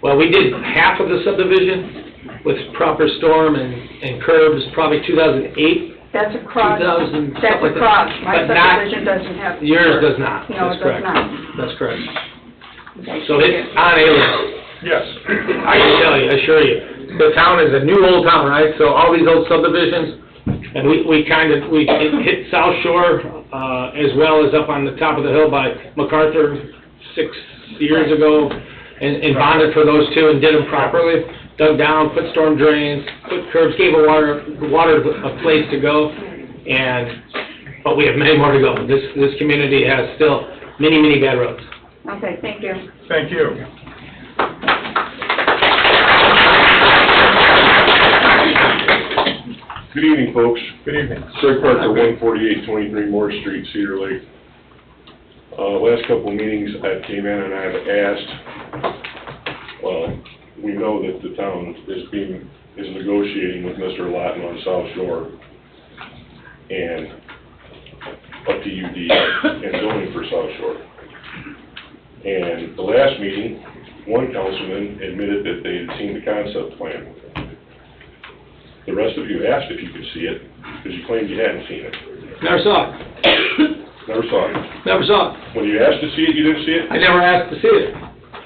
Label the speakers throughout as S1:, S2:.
S1: Well, we did half of the subdivision with proper storm and, and curbs, probably two thousand eight.
S2: That's across,
S1: 2,000,
S2: that's
S1: something like that.
S2: across, my
S1: But not-
S2: subdivision doesn't have.
S1: Yours does not,
S2: No, it
S1: that's
S2: does
S1: correct.
S2: not.
S1: That's correct. So it's on aliens,
S3: Yes.
S1: I can tell you, I assure you. The town is a new old town, right? So all these old subdivisions, and we, we kind of, we hit- hit South Shore, uh, as well as up on the top of the hill by MacArthur six years ago, and, and bonded for those two and did them properly, dug down, put storm drains, put curbs, gave a water, water a place to go, and, but we have many more to go. This, this community has still many, many bad roads.
S2: Okay, thank you.
S3: Thank you.
S4: Good evening, folks.
S3: Good evening.
S4: Craig Parker, one forty-eight, twenty-three Moore Street, Cedar Lake. Uh, last couple of meetings, I came in and I've asked, well, we know that the town is being, is negotiating with Mr. Lawton on South Shore and up to UD and zoning for South Shore. And the last meeting, one councilman admitted that they had seen the concept plan. The rest of you asked if you could see it, because you claimed you hadn't seen it.
S1: Never saw it,
S4: Never saw it.
S1: never saw it.
S4: When you asked to see it, you didn't see it?
S1: I never asked to see it.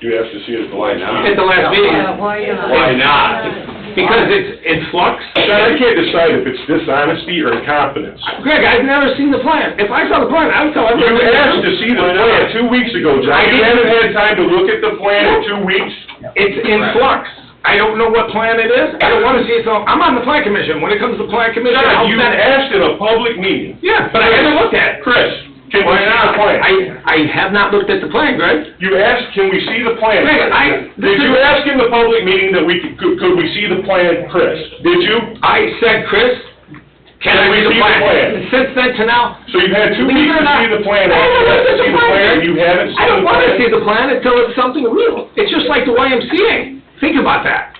S4: You asked to see it at the last
S1: At
S4: meeting.
S1: the last meeting,
S5: Why not?
S4: Why not?
S1: because it's in flux.
S4: Now, I can't decide if it's dishonesty or incompetence.
S1: Greg, I've never seen the plan. If I saw the plan, I would tell
S4: You
S1: everyone.
S4: asked to see the plan two weeks ago, John. You haven't had time to look at the plan in two weeks.
S1: It's in flux. I don't know what plan it is. I don't wanna see it, so I'm on the plan commission. When it comes to plan commission, I'll
S4: John, you
S1: send it.
S4: asked in a public meeting.
S1: Yeah, but I haven't looked at it.
S4: Chris, can we
S1: Why
S4: see the
S1: not?
S4: plan?
S1: I, I have not looked at the plan, Greg.
S4: You asked, can we see the plan?
S1: Wait, I-
S4: Did you ask in the public meeting that we, could- could could we see the plan, Chris? Did you?
S1: I said, Chris, can I read
S4: Can we
S1: the
S4: see the plan?
S1: plan? Since then to now,
S4: So you've had two
S1: Believe it or
S4: weeks to
S1: not-
S4: see the plan,
S1: I haven't
S4: after
S1: looked at
S4: that,
S1: the
S4: see the
S1: plan.
S4: plan, you haven't seen the plan.
S1: I don't wanna see the plan until it's something real. It's just like the YMCA. Think about that.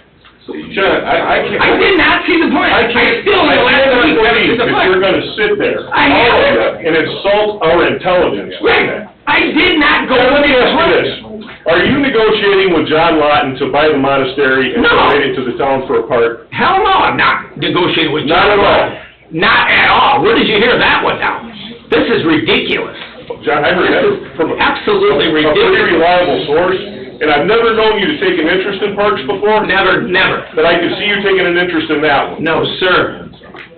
S4: John, I, I can't.
S1: I did not see the plan.
S4: I can't,
S1: I still, in
S4: I
S1: the last
S4: cannot
S1: week, haven't
S4: believe
S1: seen the
S4: that
S1: plan.
S4: you're gonna sit there,
S1: I
S4: all of
S1: haven't.
S4: you, and insult our intelligence like
S1: Greg,
S4: that.
S1: I did not go
S4: Now,
S1: with
S4: let me
S1: the
S4: ask you
S1: plan.
S4: this, are you negotiating with John Lawton to buy the monastery and
S1: No.
S4: donate it to the town for a park?
S1: Hell no, I'm not negotiating with you.
S4: Not at all.
S1: Not at all. Where did you hear that one now? This is ridiculous.
S4: John, I heard that from a.
S1: Absolutely
S4: a pretty
S1: ridiculous.
S4: reliable source, and I've never known you to take an interest in parks before,
S1: Never, never.
S4: but I can see you taking an interest in that one.
S1: No, sir.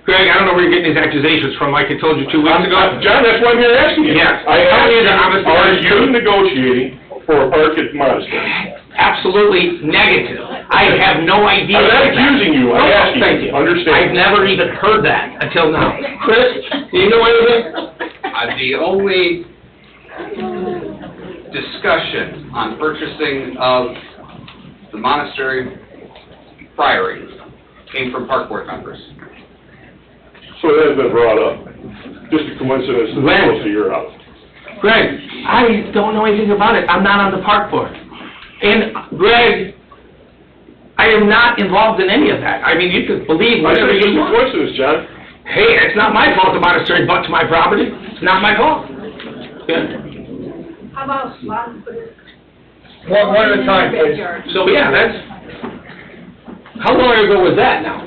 S1: Greg, I don't know where you're getting these accusations from, like I told you two weeks
S4: I'm-
S1: ago.
S4: I'm- John, that's why I'm here asking you.
S1: Yes.
S4: I
S1: Tell
S4: asked
S1: me
S4: you,
S1: the honest
S4: are
S1: honest
S4: you
S1: truth.
S4: negotiating for a park at Monastery?
S1: Absolutely negative. I have no idea.
S4: I'm not
S1: of that.
S4: accusing you, I'm
S1: No,
S4: asking
S1: Thank
S4: you.
S1: you.
S4: Understand.
S1: I've never even heard that until now. Chris, do you know anything?
S6: Uh, the only discussion on purchasing of the monastery priory came from park board members.
S4: So it has been brought up, just a coincidence that
S1: When?
S4: it's close to your house.
S1: Greg, I don't know anything about it. I'm not on the park board. And Greg, I am not involved in any of that. I mean, you can believe
S4: I said
S1: whatever
S4: it's
S1: you
S4: just a
S1: want.
S4: coincidence, John.
S1: Hey, it's not my fault the monastery butts my property. It's not my fault. Yeah.
S5: How about Lon put it
S3: One, one at a time,
S5: in the
S3: please.
S5: backyard?
S1: So, yeah, that's, how long ago was that now?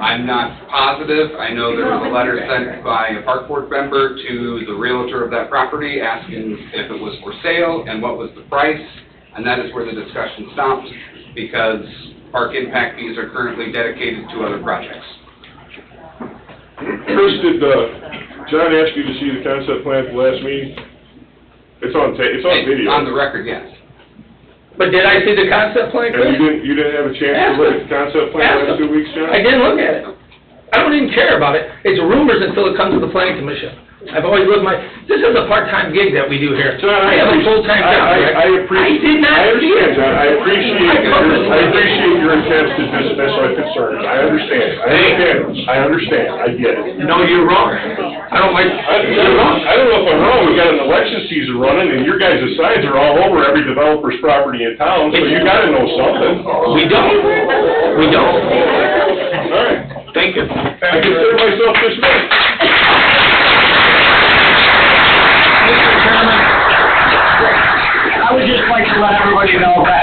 S6: I'm not positive, I know there was a letter sent by a park board member to the realtor of that property asking if it was for sale and what was the price, and that is where the discussion stopped, because park impact fees are currently dedicated to other projects.
S4: Chris, did, uh, John ask you to see the concept plan at the last meeting? It's on ta, it's on video.
S6: On the record, yes.
S1: But did I see the concept plan,
S4: And you
S1: Chris?
S4: didn't, you didn't have a chance to look at the concept plan
S1: Ask
S4: the last
S1: him.
S4: two weeks, John?
S1: I didn't look at it. I don't even care about it. It's rumors until it comes to the planning commission. I've always lived my, this is a part-time gig that we do here.
S4: John, I
S1: I have a
S4: appreciate-
S1: full-time
S4: I-
S1: job.
S4: I-
S1: Greg.
S4: I appreciate-
S1: I did not
S4: I
S1: see it.
S4: understand, John, I appreciate,
S1: I
S4: your- I
S1: purposely-
S4: appreciate your attempts to dismiss our concerns, I understand, I understand, I understand, I get it.
S1: No, you're wrong. I don't like,
S4: I I don't know, I don't know if I'm wrong, we got an election season running, and your guys' signs are all over every developer's property in town, so you gotta know something.
S1: we don't, we don't.
S4: Alright,
S1: Thank you.
S4: I consider myself dismissed.
S7: I would just like to let everybody know that